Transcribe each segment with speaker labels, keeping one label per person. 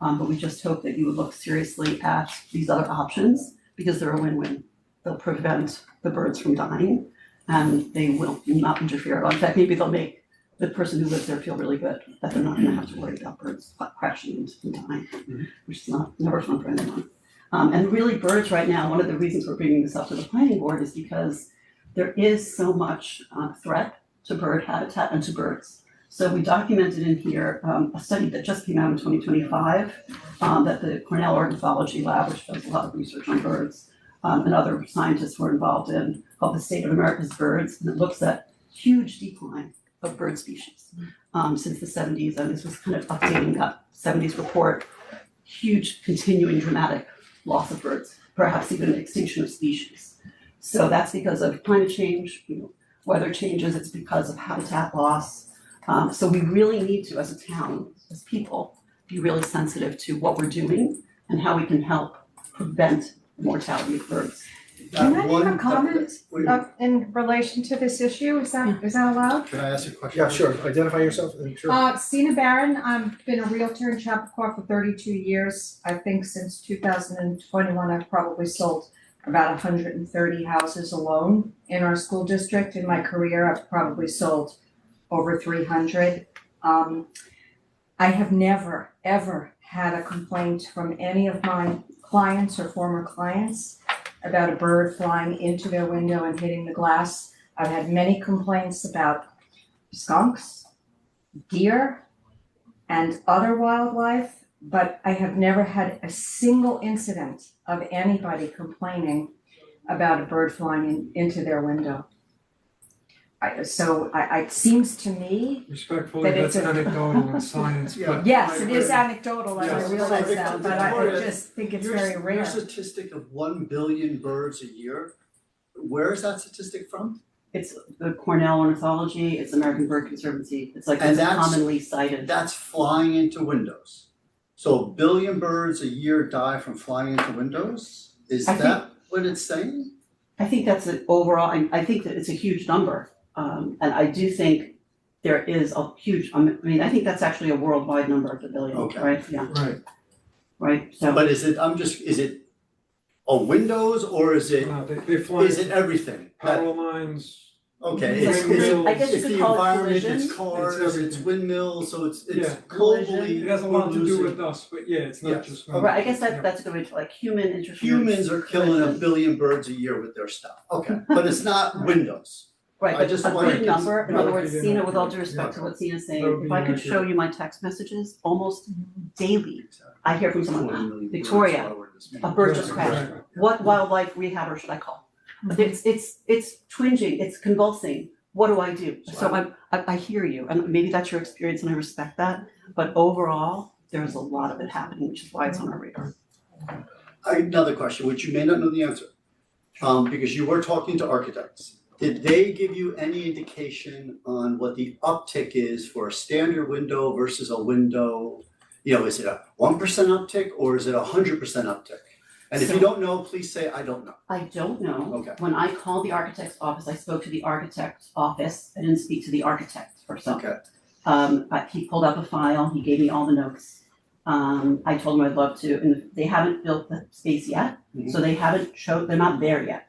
Speaker 1: Um, but we just hope that you would look seriously at these other options because they're a win-win. They'll prevent the birds from dying and they will not interfere. In fact, maybe they'll make the person who lives there feel really good that they're not gonna have to worry about birds crashing and dying, which is not, never fun for anyone. Um, and really birds right now, one of the reasons we're bringing this up to the planning board is because there is so much uh, threat to bird habitat and to birds. So we documented in here, um, a study that just came out in twenty twenty-five, um, that the Cornell Ornithology Lab, which does a lot of research on birds, um, and other scientists were involved in, called the State of America's Birds, and it looks at huge decline of bird species, um, since the seventies, and this was kind of updating that seventies report, huge continuing dramatic loss of birds, perhaps even extinction of species. So that's because of climate change, you know, weather changes, it's because of habitat loss. Um, so we really need to, as a town, as people, be really sensitive to what we're doing and how we can help prevent mortality of birds.
Speaker 2: Can I
Speaker 3: Uh,
Speaker 2: make
Speaker 3: one-
Speaker 2: a comment?
Speaker 3: Wait,
Speaker 2: Uh, in relation to this issue, is that, is that allowed?
Speaker 3: Can I ask a question?
Speaker 4: Yeah, sure, identify yourself, uh, sure.
Speaker 2: Uh, Sina Barron, I've been a Realtor in Chappaqua for thirty-two years. I think since two thousand and twenty-one, I've probably sold about hundred and thirty houses alone in our school district. In my career, I've probably sold over three hundred. Um, I have never, ever had a complaint from any of my clients or former clients about a bird flying into their window and hitting the glass. I've had many complaints about skunks, deer and other wildlife, but I have never had a single incident of anybody complaining about a bird flying in, into their window. I, so I, I, it seems to me,
Speaker 5: Respectfully,
Speaker 2: That it's
Speaker 5: that's
Speaker 2: a-
Speaker 5: anecdotal in science,
Speaker 3: Yeah.
Speaker 5: but
Speaker 2: yes,
Speaker 3: I
Speaker 2: it is
Speaker 3: agree.
Speaker 2: anecdotal, I
Speaker 3: Yes.
Speaker 2: realize that, but I, I
Speaker 3: Victoria,
Speaker 2: just think it's
Speaker 3: Your-
Speaker 2: very rare.
Speaker 3: Your statistic of one billion birds a year, where is that statistic from?
Speaker 1: It's the Cornell Ornithology, it's American Bird Conservancy, it's like
Speaker 3: And
Speaker 1: it's
Speaker 3: that's-
Speaker 1: commonly cited.
Speaker 3: That's flying into windows. So a billion birds a year die from flying into windows? Is
Speaker 1: I think-
Speaker 3: that what it's saying?
Speaker 1: I think that's an overall, I I think that it's a huge number. Um and I do think there is a huge, I mean, I think that's actually a worldwide number of the billion,
Speaker 3: Okay.
Speaker 1: right? Yeah,
Speaker 5: right,
Speaker 1: right, so.
Speaker 3: But is it, I'm just, is it a windows or is it,
Speaker 5: no, uh, they they fly
Speaker 3: is it everything? That-
Speaker 5: power lines,
Speaker 3: Okay, it's
Speaker 1: It's like
Speaker 3: it's
Speaker 5: collision.
Speaker 1: I guess you
Speaker 3: it's the
Speaker 1: could call it
Speaker 3: environment,
Speaker 1: collision.
Speaker 3: it's cars,
Speaker 5: It's
Speaker 3: it's
Speaker 5: everything.
Speaker 3: windmills, so it's it's
Speaker 5: Yeah.
Speaker 3: globally,
Speaker 1: Collision.
Speaker 5: it has a lot to do
Speaker 3: losing-
Speaker 5: with us, but yeah, it's not
Speaker 3: Yes.
Speaker 5: just.
Speaker 1: Or I guess that that's a good way to like human interference.
Speaker 3: humans are killing a
Speaker 1: collision.
Speaker 3: billion birds a year with their stuff. Okay. But it's not windows.
Speaker 1: Right,
Speaker 3: I
Speaker 1: but
Speaker 3: just
Speaker 1: a
Speaker 3: wanted
Speaker 1: big
Speaker 3: to-
Speaker 1: number, in
Speaker 5: No,
Speaker 1: other
Speaker 5: if
Speaker 1: words,
Speaker 5: you
Speaker 1: Sina,
Speaker 5: didn't-
Speaker 1: with all due respect to what Sina's
Speaker 5: That would
Speaker 1: saying,
Speaker 5: be
Speaker 1: if I could
Speaker 5: inaccurate.
Speaker 1: show you my text messages, almost daily, I hear from someone,
Speaker 3: Forty million birds
Speaker 1: Victoria,
Speaker 3: forward this
Speaker 1: a
Speaker 3: morning.
Speaker 1: bird just
Speaker 3: Right.
Speaker 1: crashed.
Speaker 5: Right.
Speaker 1: What wildlife rehabber should I call? But It's it's it's twinging, it's convulsing, what do I do?
Speaker 3: So
Speaker 1: So
Speaker 3: I-
Speaker 1: I'm, I I hear you, and maybe that's your experience and I respect that, but overall, there's a lot of it happening, which is why it's on our radar.
Speaker 3: I- Another question, which you may not know the answer, um, because you were talking to architects. Did they give you any indication on what the uptick is for a standard window versus a window? You know, is it a one percent uptick or is it a hundred percent uptick? And if you
Speaker 1: So-
Speaker 3: don't know, please say, I don't know.
Speaker 1: I don't know.
Speaker 3: Okay.
Speaker 1: When I called the architect's office, I spoke to the architect's office, I didn't speak to the architect or something.
Speaker 3: Okay.
Speaker 1: Um, but he pulled up a file, he gave me all the notes. Um, I told him I'd love to, and they haven't built the space yet, so they haven't showed, they're not there yet.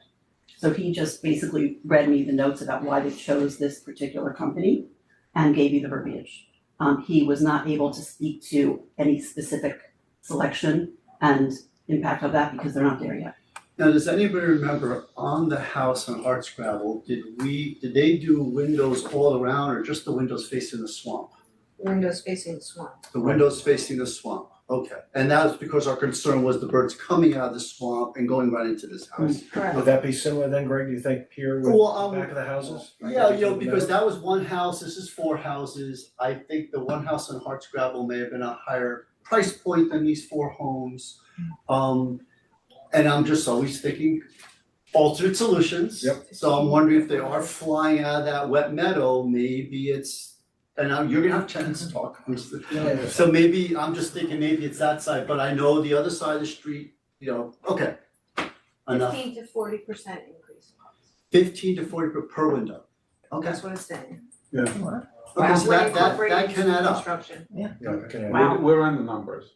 Speaker 1: So he just basically read me the notes about why they chose this particular company and gave you the verbiage. Um, he was not able to speak to any specific selection and impact of that because they're not there yet.
Speaker 3: Now, does anybody remember on the house on Harts Gravel, did we, did they do windows all around or just the windows facing the swamp?
Speaker 6: windows facing the swamp.
Speaker 3: The windows facing the swamp, okay. And that was because our concern was the birds coming out of the swamp and going right into this house.
Speaker 4: Would that be similar then, Greg, do you think, here with
Speaker 3: Well, um,
Speaker 4: the back of the houses?
Speaker 3: Yeah, you know, because that was one house, this is four houses. I think the one house on Harts Gravel may have been a higher price point than these four homes.
Speaker 4: Hmm.
Speaker 3: Um, and I'm just always thinking altered solutions.
Speaker 4: Yep.
Speaker 3: So I'm wondering if they are flying out of that wet meadow, maybe it's, and now you're gonna have a chance to talk, I'm just-
Speaker 4: Yeah.
Speaker 3: So maybe, I'm just thinking maybe it's that side, but I know the other side of the street, you know, okay. Enough,
Speaker 6: Fifteen to forty percent increase in cost,
Speaker 3: fifteen to forty per- per window, okay.
Speaker 6: that's what it's saying.
Speaker 3: Okay, so
Speaker 6: We're
Speaker 3: that that that
Speaker 6: incorporating
Speaker 3: can add up.
Speaker 6: construction.
Speaker 4: Yeah, okay.
Speaker 1: Wow.
Speaker 7: We're on the numbers.